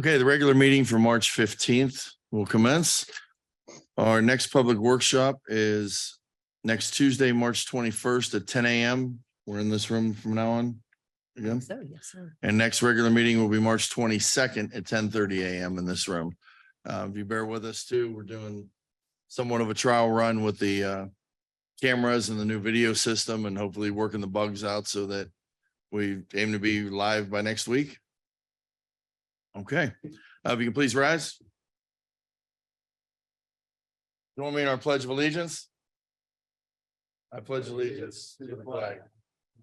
Okay, the regular meeting for March fifteenth will commence. Our next public workshop is next Tuesday, March twenty-first at ten AM. We're in this room from now on. Again, So, yes, sir. and next regular meeting will be March twenty-second at ten thirty AM in this room. Uh, if you bear with us too, we're doing somewhat of a trial run with the uh cameras and the new video system and hopefully working the bugs out so that we aim to be live by next week. Okay, Uh, if you can please rise. Join me in our pledge of allegiance. I pledge allegiance to the flag. of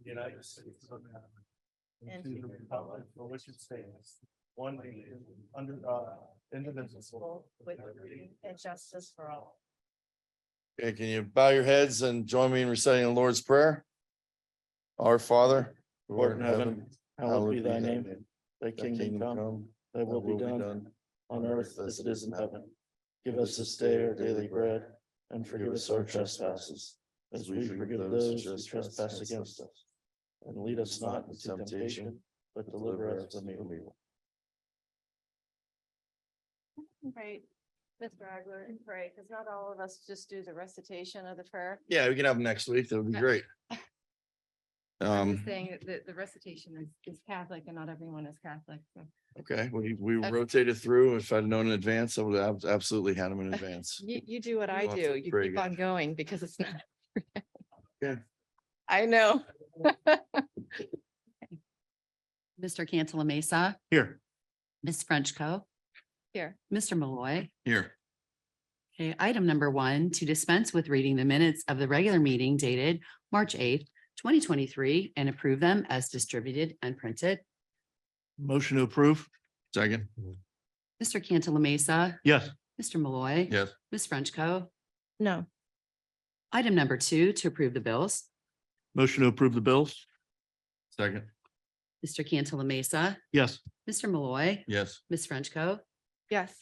the United States of America. And to the republic for which it stands, one nation, under uh, God, indivisible. With liberty and justice for all. Okay, can you bow your heads and join me in reciting the Lord's Prayer? Our Father. who art in heaven, Hallowed be thy name, thy Thy kingdom come, thy will be done, on earth as it is in heaven. Give us this day our daily bread, and forgive us our trespasses, as we forgive those who trespass against us. And lead us not into temptation, but deliver us from evil. Right, with Bragler and pray, because not all of us just do the recitation of the prayer. Yeah, we can have them next week. That would be great. I'm Um, just Saying that the, the recitation is, is Catholic and not everyone is Catholic. so. okay, we, we Okay. rotated through. If I'd known in advance, I would have absolutely had them in advance. You, you do what I You'll have to do. You pray keep again. on going because it's not. Yeah. I know. Mr. Cantala Mesa, Here. Ms. Frenchco. Here. Mr. Malloy. Here. Okay, Eh, item number one, to dispense with reading the minutes of the regular meeting dated March eighth, twenty twenty-three, and approve them as distributed and printed. Motion to approve? Second. Mr. Cantala Mesa, Yes. Mr. Malloy. Yes. Ms. Frenchco. No, Item number two, to approve the bills. Motion to approve the bills? Second. Mr. Cantala Mesa, Yes. Mr. Malloy, Yes. Ms. Frenchco. yes,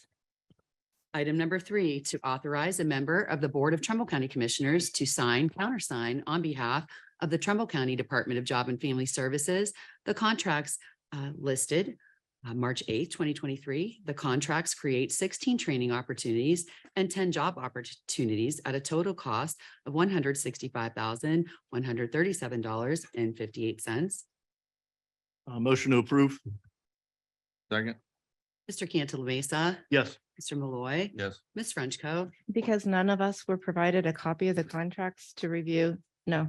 Item number three, to authorize a member of the Board of Trumbull County Commissioners to sign, countersign on behalf of the Trumbull County Department of Job and Family Services, the contracts uh, listed uh, March eighth, twenty twenty-three. The contracts create sixteen training opportunities and ten job opportunities at a total cost of one hundred sixty-five thousand, one hundred thirty-seven dollars and fifty-eight cents. Uh, motion to approve? Second. Mr. Cantala Mesa, Yes. Mr. Malloy, Yes. Ms. Frenchco. because none of us were provided a copy of the contracts to review. No.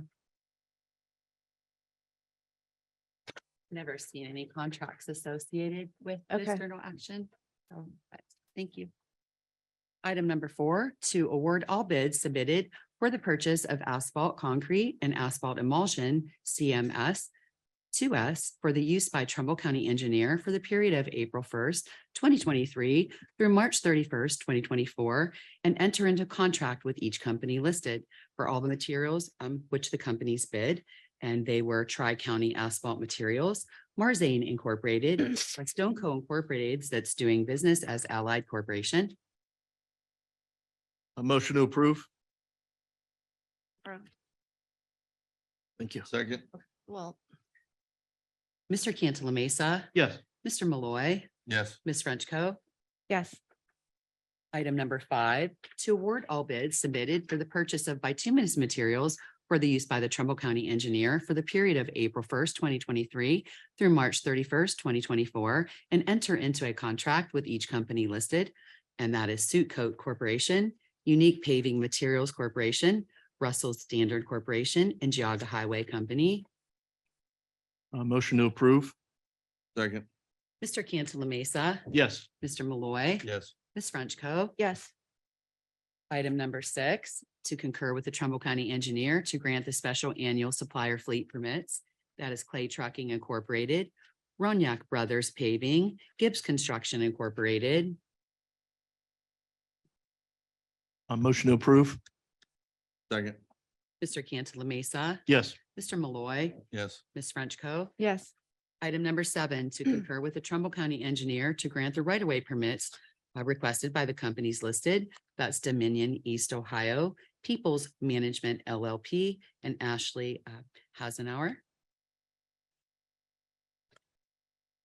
never seen any contracts associated with Okay. this journal action. So, but thank you. Item number four, to award all bids submitted for the purchase of asphalt concrete and asphalt emulsion, CMS to us for the use by Trumbull County Engineer for the period of April first, twenty twenty-three through March thirty-first, twenty twenty-four, and enter into contract with each company listed for all the materials um, which the companies bid. And they were Tri-County Asphalt Materials, Marzane Incorporated, Stone Co. Incorporated, that's doing business as Allied Corporation. motion to approve? Approved. Thank you. Second. Well, Mr. Cantala Mesa, Yes. Mr. Malloy, Yes. Ms. Frenchco. yes, Item number five, to award all bids submitted for the purchase of bituminous materials for the use by the Trumbull County Engineer for the period of April first, twenty twenty-three through March thirty-first, twenty twenty-four, and enter into a contract with each company listed, and that is Suit Coat Corporation, Unique Paving Materials Corporation, Russell Standard Corporation, and Geogga Highway Company. motion to approve? Second. Mr. Cantala Mesa, Yes. Mr. Malloy, Yes. Ms. Frenchco. yes, Item number six, to concur with the Trumbull County Engineer to grant the special annual supplier fleet permits. That is Clay Trucking Incorporated, Roniak Brothers Paving, Gibbs Construction Incorporated. motion to approve? Second. Mr. Cantala Mesa, Yes. Mr. Malloy, Yes. Ms. Frenchco. yes, Item number seven, to concur with the Trumbull County Engineer to grant the right-of-way permits uh, requested by the companies listed. That's Dominion East Ohio, Peoples Management LLP, and Ashley uh, Hasenauer.